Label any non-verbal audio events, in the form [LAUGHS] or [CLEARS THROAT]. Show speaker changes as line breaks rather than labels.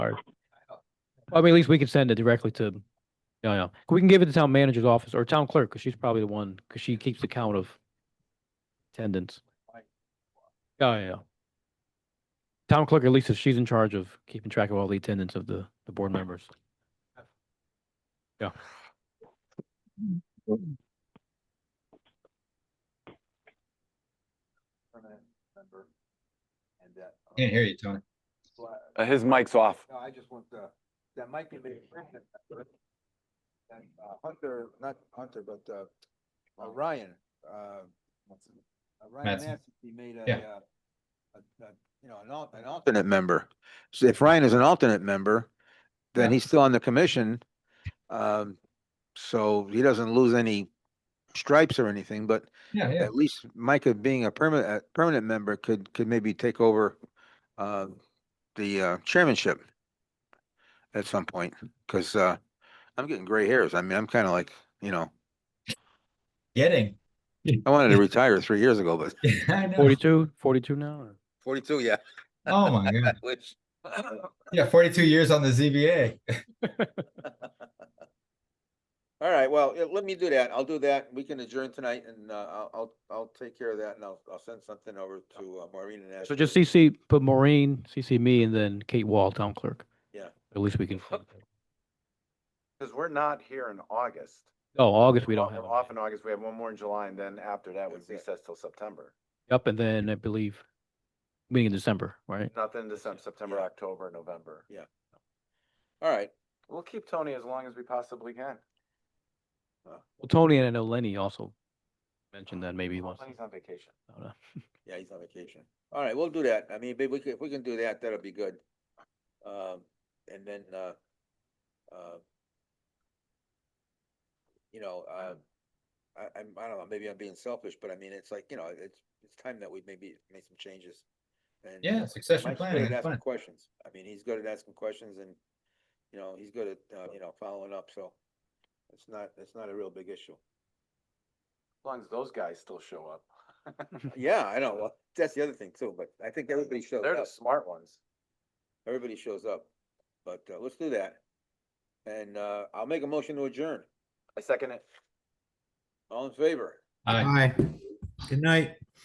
charge.
I mean, at least we can send it directly to, no, no, we can give it to town manager's office or town clerk, because she's probably the one, because she keeps the count of attendance. Oh, yeah. Town clerk, at least if she's in charge of keeping track of all the attendance of the, the board members. Yeah.
permanent member. And that. uh,
Can't hear you, Tony.
so I-
Uh, His mic's off.
No, I just want to, that might be made. permanent member. And uh, Hunter, not Hunter, but uh, uh, Ryan, uh, uh, Ryan
Mattson.
Mattson, he made a,
Yeah.
uh, a- a- you know, an al- an alternate member. So if Ryan is an alternate member, then
Yeah.
he's still on the commission. Um, so he doesn't lose any stripes or anything, but
Yeah, yeah.
at least Micah being a permanent, permanent member could, could maybe take over uh, the uh, chairmanship at some point, because I'm getting gray hairs. I mean, I'm kind of like, you know,
[LAUGHS] Getting.
I wanted [LAUGHS] to retire three years ago, but
I know.
Forty-two, forty-two now, or?
[LAUGHS] forty-two, yeah. [LAUGHS]
Oh, my God.
Which, [CLEARS THROAT]
Yeah, forty-two years on the ZBA.
all right, well, yeah, let me do that. I'll do that. We can adjourn tonight and uh, I'll, I'll, I'll take care of that and I'll, I'll send something over to uh, Maureen and. ask
So
her.
just CC, put Maureen, CC me, and then Kate Wall, town clerk.
Yeah.
At least we can,
Because we're not here in August.
oh, August, we
We're
don't
off-
have.
we're
a
Off
meeting.
in August, we have one more in July, and then after that, we
That's it.
recess till September.
Yep, and then I believe, meeting in December, right?
Nothing December, September,
Yeah.
October, November.
All right.
We'll keep Tony as long as we possibly can.
Well, Tony and I know Lenny also mentioned that maybe he wants. to-
He's on vacation.
I don't know.
Yeah, he's on vacation. All right, we'll do that. I mean, if we can, if we can do that, that'll be good. Um, and then, uh, uh, you know, uh, I, I'm, I don't know, maybe I'm being selfish, but I mean, it's like, you know, it's, it's time that we maybe make some changes. And,
Yeah,
uh,
succession
Mike's good
planning.
at
it's
asking
fun.
questions. I mean, he's good at asking questions and, you know, he's good at, uh, you know, following up, so it's not, it's not a real big issue.
As long as those guys still show up.
[LAUGHS]
Yeah, I know. Well, that's the other thing too, but I think everybody shows
They're the
up.
smart ones.
everybody shows up. But uh, let's do that. And uh, I'll make a motion to adjourn.
I second it.
All in favor?
Aye.
Aye. Good night.